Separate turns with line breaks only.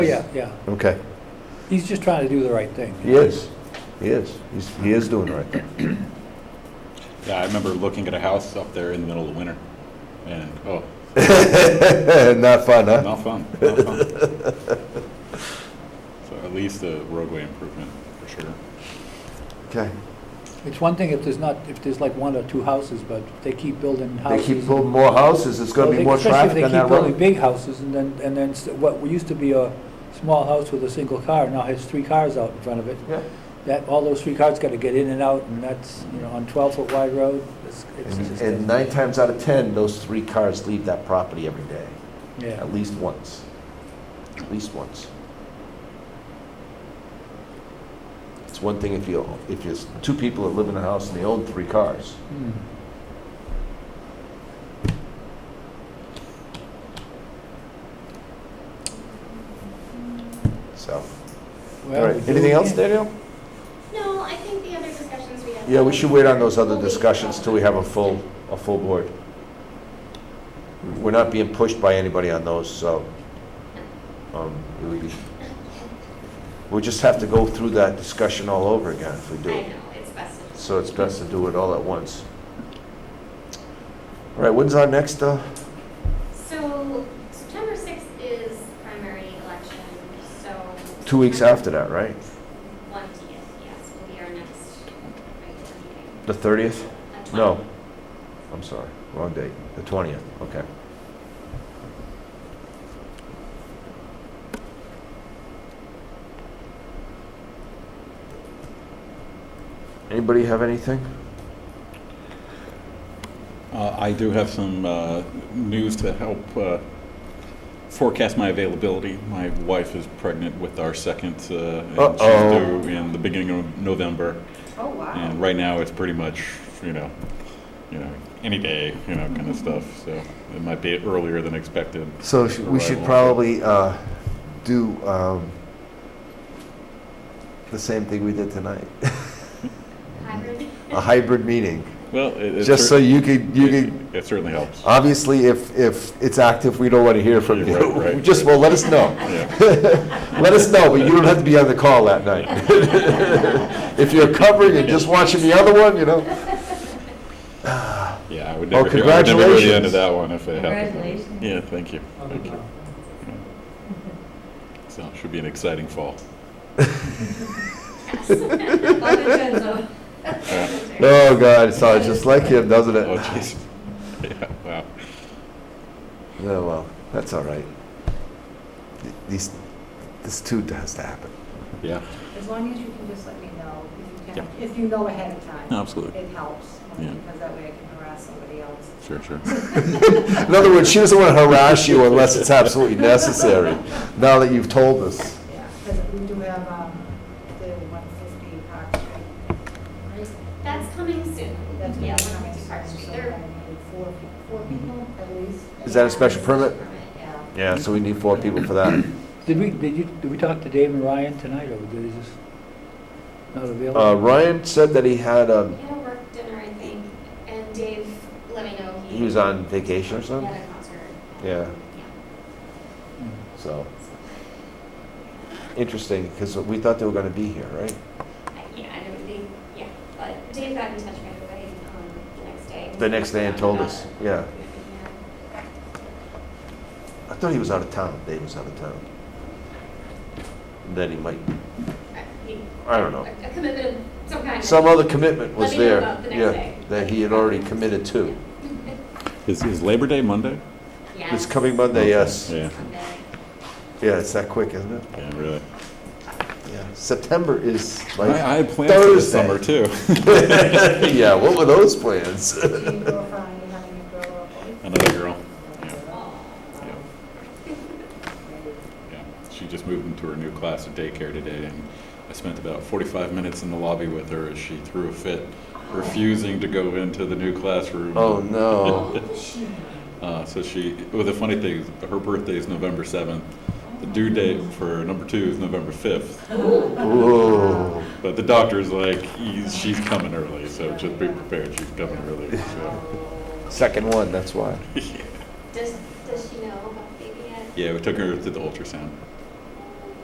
Oh, yeah, yeah.
Okay.
He's just trying to do the right thing.
He is. He is. He's, he is doing the right thing.
Yeah, I remember looking at a house up there in the middle of winter, and, oh,
Not fun, huh?
not fun, not fun. So at least a roadway improvement, for sure.
Okay.
It's one thing if there's not, if there's like one or two houses, but if they keep building
They
houses.
keep building more houses, there's gonna be more traffic
Especially if
on that
they keep building
road.
big houses, and then, and then s- what used to be a small house with a single car now has three cars out in front of it.
Yeah.
That, all those three cars gotta get in and out, and that's, you know, on twelve-foot wide road, it's, it's
And
just.
and nine times out of 10, those three cars leave that property every day,
Yeah,
at least once. At least once. It's one thing if you, if there's two people that live in a house and they own three cars.
Hmm.
So, all
Well,
right,
we do-
anything else, Daniel?
No, I think the other discussions we had.
Yeah, we should wait on those other
We'll wait.
discussions till we have a full, a full board. We're not being pushed by anybody on those, so, um, it would be, we just have to go through that discussion all over again if we
I
do.
know,
it.
it's best. if-
So it's best to do it all at once. All right, when's our next, uh,
So September 6th is primary election, so.
two weeks after that, right?
20th, yes, will be our next regular meeting.
The thirtieth?
At 20.
No, I'm sorry, wrong date, the twentieth, okay. Anybody have anything?
Uh, I do have some uh, news to help uh, forecast my availability. My wife is pregnant with our second, uh, and
Uh-oh.
she's due in the beginning of November.
Oh, wow.
And right now, it's pretty much, you know, you know, any day, you know, kind of stuff. So it might be earlier than expected.
So sh- we should
Arrival.
probably uh, do um, the same thing we did tonight,
Hybrid.
a hybrid meeting,
Well, it, it
just so
cer-
you could, you
it,
could,
it certainly helps.
obviously, if, if it's active, we don't want to hear from
Yeah, right,
you.
right.
Just, well, let us know.
Yeah.
Let us know, but you don't have to be on the call that night. If you're covering and just watching the other one, you know.
Yeah, I would
Well,
never, hear, I would never hear
Oh, congratulations.
the end of that one if it happened.
Congratulations.
Yeah, thank you, thank you. So it should be an exciting fall.
Oh, God, it sounds just like him, doesn't
Oh,
it?
jeez. Yeah, wow.
Yeah, well, that's all right. Th- These, this too has to happen.
Yeah,
As long as you can just let me know, if you can,
Yeah.
if you know ahead of time.
absolutely.
It helps,
Yeah.
because that way I can harass somebody else.
Sure, sure.
In other words, she doesn't want to harass you unless it's absolutely necessary, now that you've told us.
Yeah, because we do have, um, the one fifty Park Street.
That's coming soon.
That's
Yeah,
what
we're
I'm
going to Park
expecting,
Street.
so
They're-
I need four, pe- four
Mm-hmm.
people at least.
Is that a special permit?
Yeah.
Yeah.
Yeah, so we need four people for that.
Did we, did you, did we talk to Dave and Ryan tonight, or did he just not available?
Uh, Ryan said that he had, um,
We had a work dinner, I think, and Dave let me know he.
he was on vacation or
He
something,
had a concert.
Yeah.
Yeah.
Hmm.
so. Interesting, because we thought they were going to be here, right?
I- Yeah, I don't think, yeah, but Dave got in touch right away um, the next day.
The next day and told us,
About it.
yeah. I thought he was out of town, Dave was out of town. Then he might,
I- he-
I don't know.
A commitment of some kind.
Some other commitment was
Let me know
there.
about the next day.
Yeah, that he had already committed to.
Is, is Labor Day Monday?
Yeah.
It's coming Monday, yes.
Yeah,
Yeah, it's that quick, isn't it?
yeah, really.
Yeah. September is
I, I
like,
had plans for this
Thursday.
summer too.
yeah, what were those plans?
Do you go find having a girl or boy?
Another girl. Yeah,
Maybe.
yeah. She just moved into her new class at daycare today, and I spent about 45 minutes in the lobby with her as she threw a fit, refusing to go into the new classroom.
Oh, no.
Uh, so she, well, the funny thing is, her birthday is November 7th. The due date for number two is November 5th.
Ooh.
But the doctor's like, he's, she's coming early, so just be prepared, she's coming early. So.
Oh.
Second one, that's why.
Does, does she know about the baby yet?
Yeah, we took her to the ultrasound.